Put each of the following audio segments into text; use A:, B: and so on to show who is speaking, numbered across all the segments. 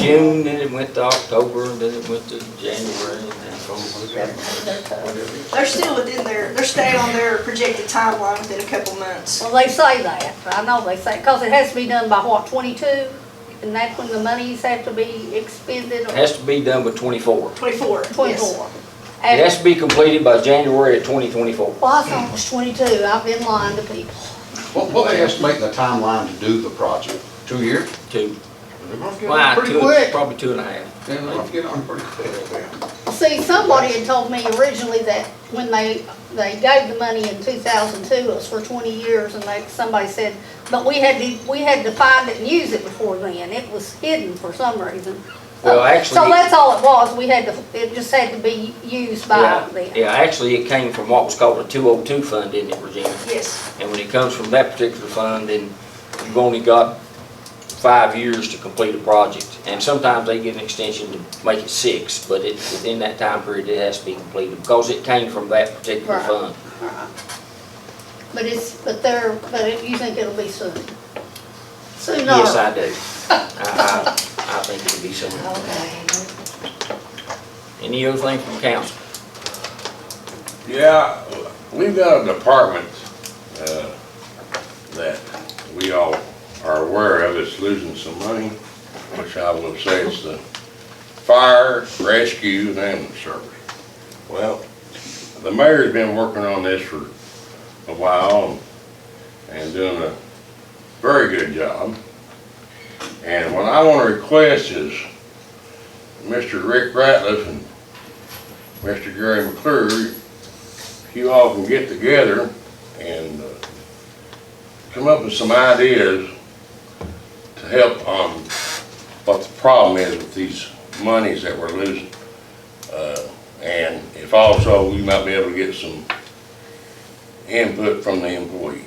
A: June, then it went to October, and then it went to January, and then.
B: They're still within their, they're staying on their projected timeline within a couple months.
C: Well, they say that, I know they say, because it has to be done by what, twenty-two? And that's when the monies have to be expended
A: It
C: or
A: has to be done by twenty-four. It
B: Twenty-four. yes.
C: twenty-four? And-
A: has to be completed by January of twenty twenty-four.
C: Well, I thought it was twenty-two, I've been lying to people.
D: What, what they estimate the timeline to do the project? Two years?
A: Two.
D: They're gonna get
A: Why,
D: on pretty
A: two,
D: quick.
A: probably two and a half.
D: They're gonna get on pretty quick.
C: See, somebody had told me originally that when they, they gave the money in two thousand two, it was for twenty years, and they, somebody said, but we had to, we had to find it and use it before then, it was hidden for some reason.
A: Well,
C: So
A: actually-
C: that's all it was, we had to, it just had to be used by
A: Yeah,
C: then.
A: Yeah, actually, it came from what was called a two oh two fund, didn't it, Regina?
B: Yes,
A: And when it comes from that particular fund, then you've only got five years to complete a project. And sometimes they get an extension to make it six, but it, within that time period, it has to be completed because it came from that particular
C: Right.
A: fund.
C: But it's, but they're, but it- you think it'll be soon? Soon or?
A: Yes, I do. I, I, I think it'll be somewhere.
C: Okay.
A: Any other thing from council?
E: Yeah, we've got a department, uh, that we all are aware of, it's losing some money, which I will say is the fire, rescue, and ambulance service. Well, the mayor's been working on this for a while and, and doing a very good job. And what I wanna request is Mr. Rick Ratliff and Mr. Gary McClure, you all can get together and uh, come up with some ideas to help on what the problem is with these monies that we're losing. Uh, And if also, we might be able to get some input from the employees.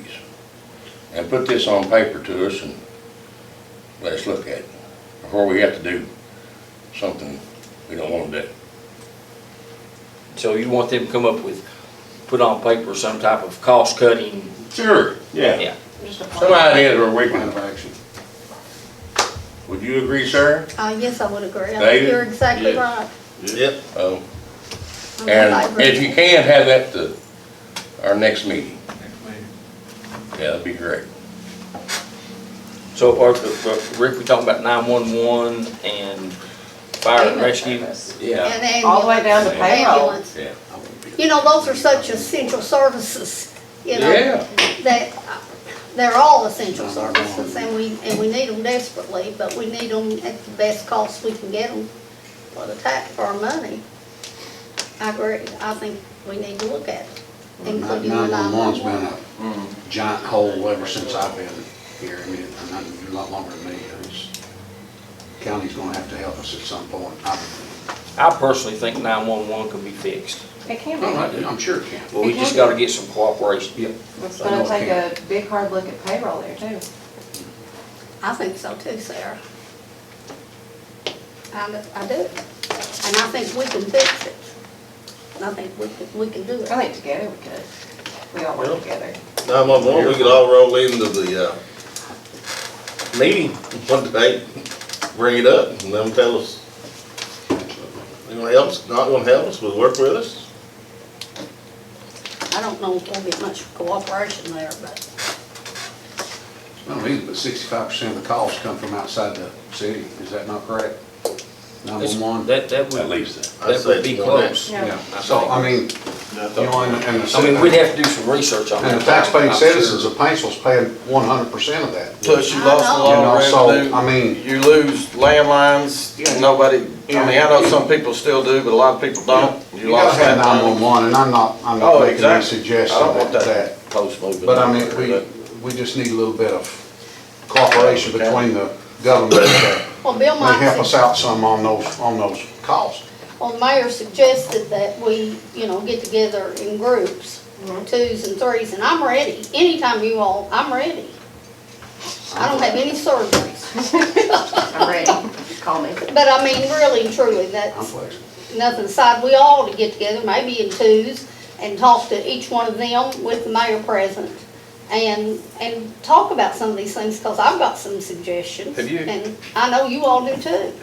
E: And put this on paper to us and let's look at it before we have to do something we don't want to do.
A: So you want them to come up with, put on paper some type of cost cutting?
E: Sure,
A: Yeah.
E: Some ideas where we
D: Plan of
E: can,
D: action.
E: would you agree, sir?
C: Uh, yes, I would agree, I think
E: David?
C: you're exactly
E: Yes.
C: right.
E: Yep. Oh,
C: I'm glad I
E: and
C: agree.
E: if you can, have that to our next meeting. Yeah, that'd be great.
A: So, or, Rick, we talking about nine-one-one and fire and rescue?
E: Yeah.
C: And ambulance.
F: All the way down to payroll.
C: ambulance.
E: Yeah.
C: You know, those are such essential services, you know,
E: Yeah,
C: that, uh, they're all essential services, and we, and we need them desperately, but we need them at the best cost we can get them for the tax, for our money. I agree, I think we need to look at it, including the
D: Nine-one-one's been
C: 911.
D: a giant hole ever since I've been here. I mean, it's not- it's a lot longer than me. It's- County's gonna have to help us at some point. I-
A: I personally think nine-one-one can be fixed.
F: It can
D: I'm
F: be.
D: not- I'm sure it can.
A: Well, we just gotta get some cooperation.
F: It's gonna take a big hard look at payroll there too.
C: I think so too, Sarah. I, do- I do, and I think we can fix it, and I think we can, we can do it.
F: I think together we could. We all work together.
G: Nine-one-one, we could all roll into the, uh, meeting one day, bring it up, and them tell us, they gonna help us, not gonna help us, will work with us.
C: I don't know if there'll be much cooperation there, but
D: I don't either, but sixty-five percent of the calls come from outside the city. Is that not correct? Nine-one-one?
A: That, that
E: at
A: would,
E: least that.
G: I'd
A: that
G: say
A: would be
G: it's more than
A: close.
F: Yeah.
D: So, I mean, you know, and, and the.
A: I mean, we'd have to do some research on that.
D: And the taxpaying
A: I'm
D: citizens
A: sure.
D: of Paintsville's paying one hundred percent of that.
H: Plus you
C: I
H: lost a
C: know.
H: lot
D: You know, so,
H: of
D: I mean-
H: revenue, you lose landlines, nobody, I mean, I know some people still do, but a lot of people don't.
D: You gotta
H: lost
D: have
H: that money.
D: nine-one-one, and I'm not, I'm not
H: Oh,
D: making any
H: exactly. I
D: suggestion
H: don't want
D: that, that,
H: that post moving.
D: but I
H: on
D: mean,
H: there,
D: we,
H: but-
D: we just need a little bit of cooperation between the government that
C: well, Bill
D: may help
C: might,
D: us
C: sug-
D: out some on those, on those calls.
C: well, the mayor suggested that we, you know, get together in groups, twos and threes, and I'm ready. Anytime you all, I'm ready. I don't have any surgeries,
F: I'm ready. Call me.
C: but I mean, really and truly,
D: I'm
C: that's
D: flexible.
C: nothing aside. We all to get together, maybe in twos, and talk to each one of them with the mayor present. And, and talk about some of these things, because I've got some suggestions.
H: Have you-
C: And I know you all do too.